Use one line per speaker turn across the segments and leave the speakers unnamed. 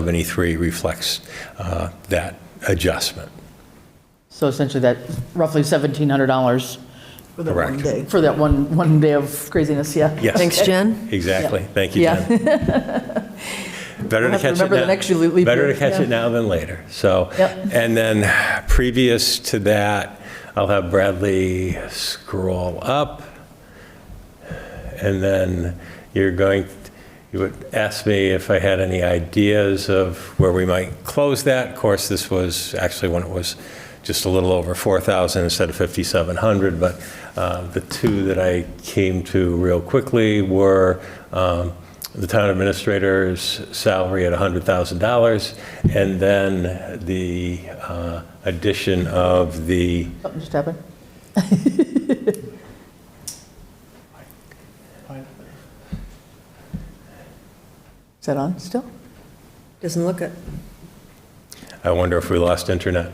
73 reflects uh, that adjustment.
So essentially that roughly $1,700
For that one
Correct.
day.
for that one, one day of craziness, yeah.
Yes.
Thanks, Jen.
Exactly. Thank you,
Yeah.
Jen. Better to
We'll have to
catch it
remember the
now-
next you leap
Better
year,
to catch
yeah.
it now than later, so.
Yep.
And then previous to that, I'll have Bradley scroll up. And then you're going, you would ask me if I had any ideas of where we might close that. Of course, this was actually when it was just a little over 4,000 instead of 5,700, but uh, the two that I came to real quickly were um, the town administrator's salary at $100,000, and then the uh, addition of the,
Something just happened. Is that on still?
Doesn't look it.
I wonder if we lost internet.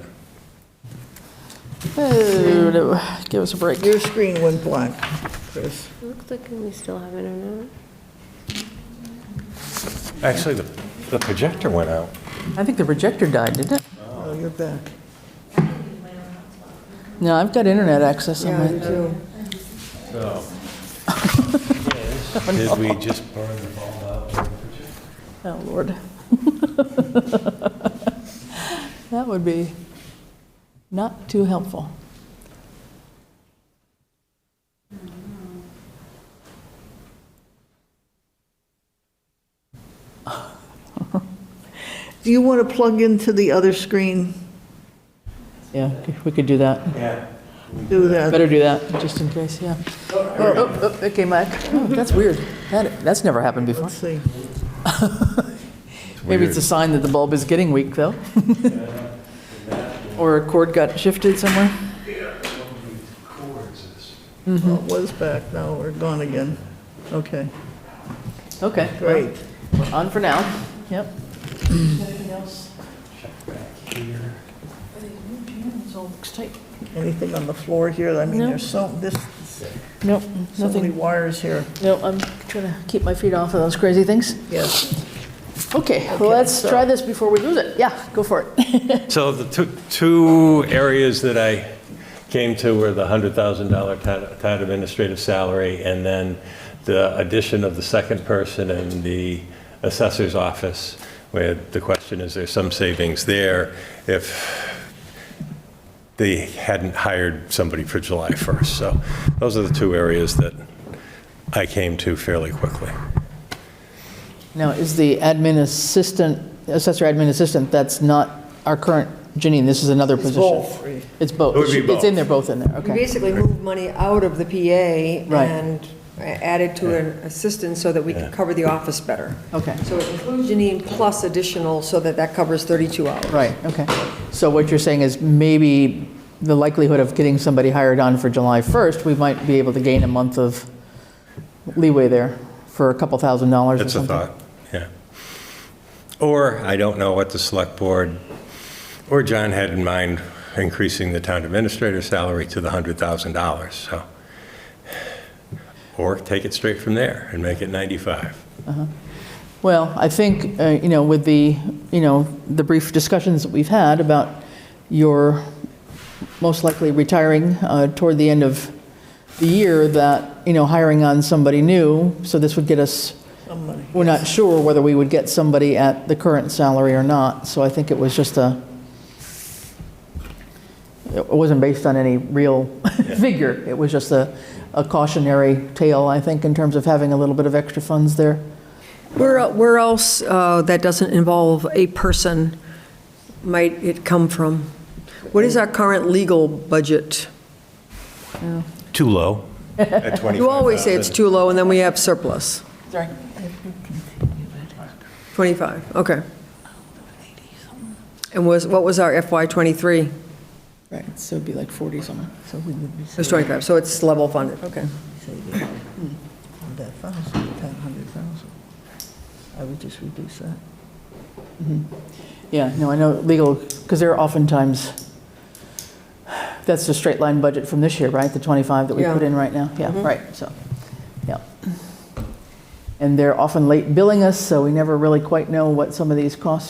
Oh, no. Give us a break.
Your screen went blank, Chris.
Looks like we still have internet.
Actually, the the projector went out.
I think the projector died, didn't it?
Oh, you're back.
No, I've got internet access on
Yeah, you
my,
do.
Did we Oh. just burn the ball out?
oh, Lord. That would be not too helpful.
Do you want to plug into the other screen?
Yeah, we could do that.
Do that.
Better do that, just in case, yeah. Oh, oh, oh, it came back. Oh, That's weird. That, that's never happened before.
Let's see.
Maybe it's a sign that the bulb is getting weak, though. Or a cord got shifted somewhere. Mm-hmm.
Oh, It was back, now we're gone again. Okay,
Okay.
great.
We're on for now. Yep. Anything else? It's all looks tight.
Anything on the floor here? I mean,
No.
there's so, this,
Nope,
so many
nothing.
wires here.
No, I'm trying to keep my feet off of those crazy things.
Yes.
Okay, let's
so-
try this before we lose it. Yeah, go for it.
So the two, two areas that I came to were the $100,000 town- town administrative salary, and then the addition of the second person in the assessor's office, where the question is, there's some savings there if they hadn't hired somebody for July 1st. So those are the two areas that I came to fairly quickly.
Now, is the admin assistant, assessor admin assistant, that's not our current Janine, this is another position?
both.
It's both.
It would be
It's
both.
in there, both in there,
We
okay.
basically moved money out of the PA
Right.
and added to an assistant so that we could cover the office better.
Okay,
So it includes Janine plus additional so that that covers 32 hours.
right, okay. So what you're saying is maybe the likelihood of getting somebody hired on for July 1st, we might be able to gain a month of leeway there for a couple thousand dollars or
It's a
something.
thought, yeah. Or, I don't know what the select board, or John had in mind, increasing the town administrator's salary to the $100,000, so. Or take it straight from there and make it 95.
Well, I think, uh, you know, with the, you know, the brief discussions that we've had about your most likely retiring uh, toward the end of the year, that, you know, hiring on somebody new, so this would get us,
Somebody.
we're not sure whether we would get somebody at the current salary or not, so I think it was just a, it wasn't based on any real figure, it was just a a cautionary tale, I think, in terms of having a little bit of extra funds there.
Where, where else uh, that doesn't involve a person might it come from? What is our current legal budget?
Too low. At 25,000.
You always say it's too low, and then we have surplus.
Sorry.
25, okay. And was, what was our FY '23? It
Right, so it'd be like 40 something.
So we would be
was 25, so it's level funded, okay.
saving that thousand, ten hundred thousand. I would just reduce that.
Yeah, no, I know legal, because they're oftentimes, that's the straight line budget from this year, right? The 25 that we
Yeah.
put in right now? Yeah, right, so, yeah. And they're often late billing us, so we never really quite know what some of these costs